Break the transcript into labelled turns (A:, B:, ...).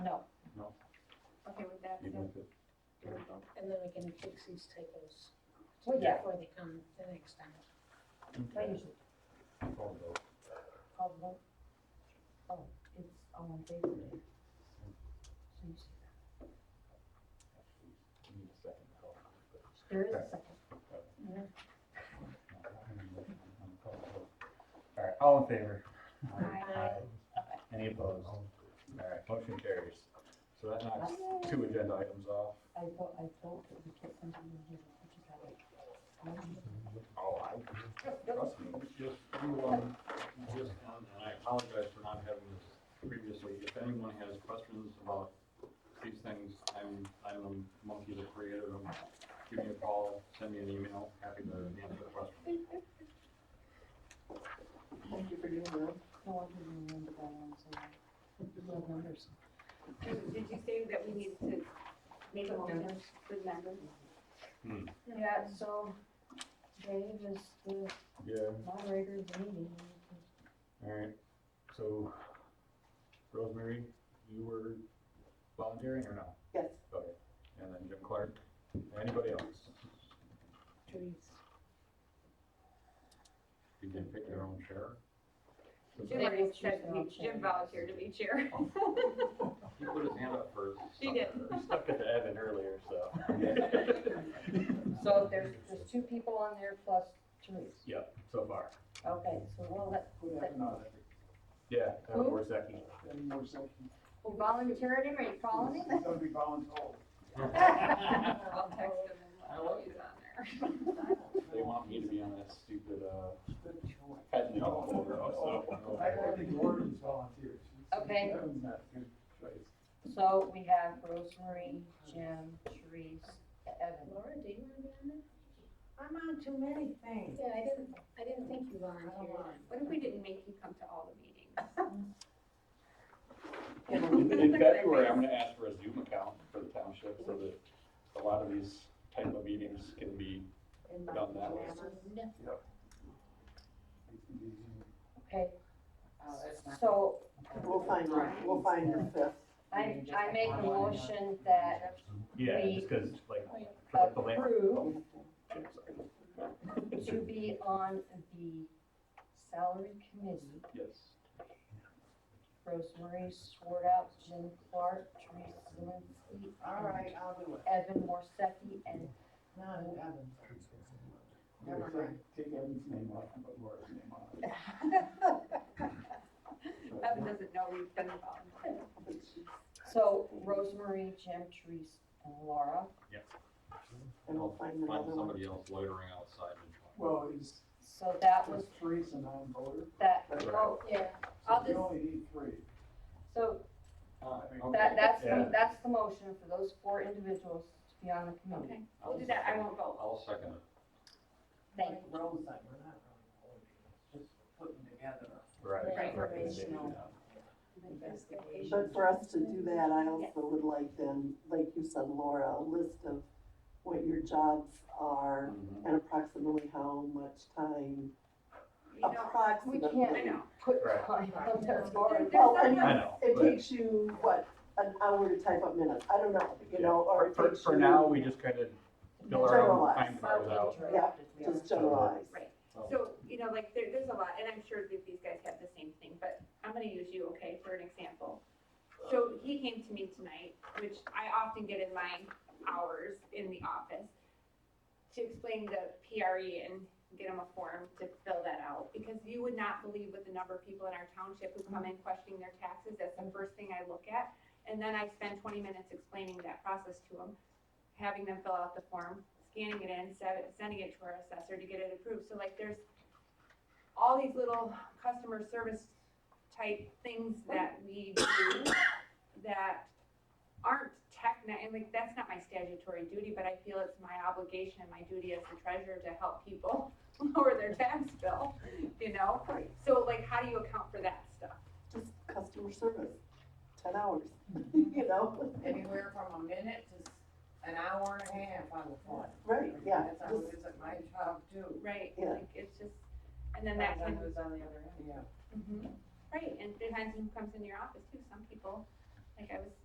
A: okay with that,
B: You
A: so.
B: got it.
C: And then we can fix these typos
A: Well, yeah,
C: before they come the next time.
A: I usually
B: Call vote.
A: call the vote. Oh, it's all in favor. So you see that.
B: You need a second to call.
A: There is a second.
B: I'm call vote. All right, all in favor?
A: Aye.
B: Any opposed? All right, motion carries. So that knocks two agenda items off.
A: I thought, I thought that we kept something in here, which is how it-
B: Oh, I, trust me.
D: Just, you, um, just, um, and I apologize for not having this previously. If anyone has questions about these things, I'm, I'm the monkey that created them. Give me a call, send me an email, happy to answer questions.
B: Thank you for doing that.
A: No one can remember that one, so.
C: We have numbers.
E: Did did you say that we need to make a motion for the members?
A: Yeah, so Dave is the
B: Yeah,
A: moderator of the meeting.
B: all right. So Rosemary, you were volunteering or no?
F: Yes,
B: Okay, and then Jim Clark, anybody else?
C: Trees.
D: You can pick your own chair.
E: Jim already said he- Jim volunteered to be chair.
D: He put his hand up first.
E: He did.
D: He stuck it to Evan earlier, so.
A: So there's, there's two people on there plus Teresa.
B: Yep, so far.
A: Okay, so we'll let,
F: we have another,
B: Yeah,
A: Who?
B: Evan Worsacki.
F: any more sections.
A: who volunteered him, are you calling him?
F: It's gonna be voluntold.
E: I'll text him and let he's on there.
D: They want me to be on that stupid, uh,
F: Good choice.
D: head and over, so.
F: I don't think Gordon's volunteers.
A: Okay.
F: Kevin's not a good choice.
A: So we have Rosemary, Jim, Therese, Evan.
C: Laura, do you want to be on there?
G: I'm on too many things.
C: Yeah, I didn't, I didn't think you volunteered.
E: What if we didn't make you come to all the meetings?
D: In February, I'm gonna ask for a Zoom account for the township, so that a lot of these type of meetings can be
G: In my
D: done that way.
C: Soon.
F: It's gonna be easy.
A: Okay,
G: Oh, that's not-
A: so
H: We'll find your, we'll find your fifth.
A: I, I make a motion that
B: Yeah,
A: We-
B: just because, like, like the land.
A: approve
B: I'm sorry.
A: to be on the salary committee.
D: Yes.
A: Rosemary Swartout, Jim Clark, Teresa Zelinski,
G: All right, I'll do it.
A: Evan Morsecki, and
G: No, Evan.
F: We'll
G: Never mind.
F: Take take Evan's name off and put Laura's name on.
E: Evan doesn't know we've been volunteering.
A: so Rosemary, Jim, Teresa, and Laura.
H: And we'll find
D: Find
H: another one.
D: somebody else loitering outside and join.
F: Well, is,
A: So that was
F: is Teresa non-voter?
A: that,
F: Right.
A: oh, yeah,
F: So
A: I'll
F: you
A: just-
F: only need three.
A: so
D: Uh,
F: I mean,
A: That, that's,
B: Yeah.
A: the that's the motion for those four individuals to be on the committee.
E: Okay, we'll do that, I won't vote.
D: I'll second it.
A: Thank you.
G: Roads like we're not really voting, it's just putting together.
B: Right.
E: Right.
B: Recommendation.
H: But for us to do that, I also would like then, like you said, Laura, a list of what your jobs
E: Mm-hmm.
H: are
D: Mhm.
H: and approximately how much time,
E: You know,
A: We
H: approximately.
E: I
A: can't
E: know.
A: put
B: Right.
A: time on those
E: There-
A: boards.
E: there's
H: Well, and-
E: someone-
B: I know,
H: It
B: but
H: takes you, what, an hour to type up minutes, I don't know, you know, or
B: for,
H: it
B: for,
H: takes
B: for
H: you-
B: now, we just kind of fill our own
H: Generalize.
B: time cards out.
H: Yeah, Just generalize.
E: Right.
D: Oh.
E: So, you know, like, there, there's a lot, and I'm sure that these guys have the same thing, but I'm gonna use you, okay, for an example. So he came to me tonight, which I often get in my hours in the office, to explain the PRE and get him a form to fill that out, because you would not believe what the number of people in our township who come in questioning their taxes, that's the first thing I look at. And then I spend twenty minutes explaining that process to them, having them fill out the form, scanning it in, se- sending it to our assessor to get it approved. So like, there's all these little customer service type things that we do that aren't techni, and like, that's not my statutory duty, but I feel it's my obligation and my duty as the treasurer to help people lower their tax bill, you know? So like, how do you account for that stuff?
H: Just customer service, ten hours, you know,
G: Anywhere from a minute to an hour and a half on the phone.
H: right, yeah, just
G: is at my job too.
E: Right,
H: Yeah.
E: like, it's just, and then that kind of
G: who's on the other end. Yeah.
E: Mhm. Right, and depends who comes in your office too, some people, like I was